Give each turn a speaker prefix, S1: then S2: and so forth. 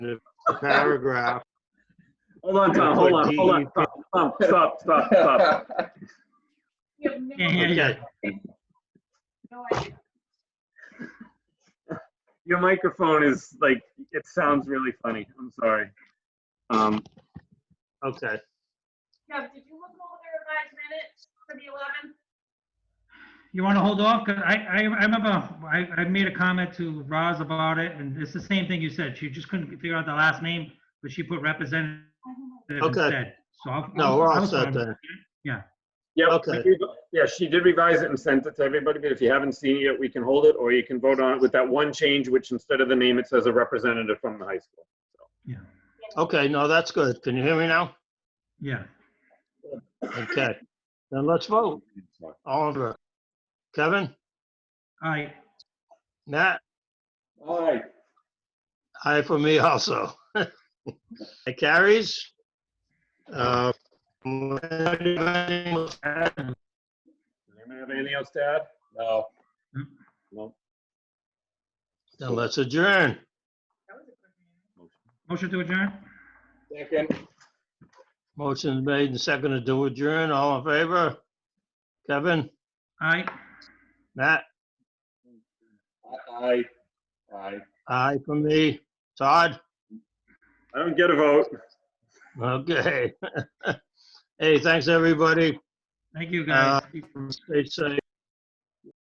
S1: of the paragraph.
S2: Hold on, Tom, hold on, hold on, Tom, Tom, stop, stop, stop.
S3: You have no-
S4: Can't hear you.
S1: Okay,
S3: no idea.
S2: Your microphone is like, it sounds really funny. I'm sorry. Um,
S1: okay.
S3: Kev, did you look over the revised minutes for the 11th?
S4: You want to hold off? 'Cause I, I, I remember I, I made a comment to Roz about it, and it's the same thing you said. She just couldn't figure out the last name, but she put representative
S1: Okay.
S4: instead. So I'll.
S1: Oh, No, we're all
S4: I'll-
S1: set then.
S2: yep,
S1: Okay.
S2: we- yeah, she did revise it and sent it to everybody, but if you haven't seen it yet, we can hold it, or you can vote on it with that one change, which instead of the name, it says a representative from the high school.
S1: Okay, no, that's good. Can you hear me now?
S4: Yeah.
S1: Okay, then let's vote. Oliver, Kevin,
S4: All right.
S1: Matt,
S2: All right.
S1: aye for me also. It carries. Uh, Okay,
S2: Anyone have anything else to add? No.
S1: Then let's adjourn.
S4: Motion to adjourn?
S2: Second.
S1: Motion made and seconded to adjourn. All in favor? Kevin,
S4: All right.
S1: Matt,
S2: Aye. Aye.
S1: aye for me. Todd?
S2: I don't get a vote.
S1: Okay. Hey, thanks, everybody. Uh,
S4: Thank you, guys.
S1: Stay safe.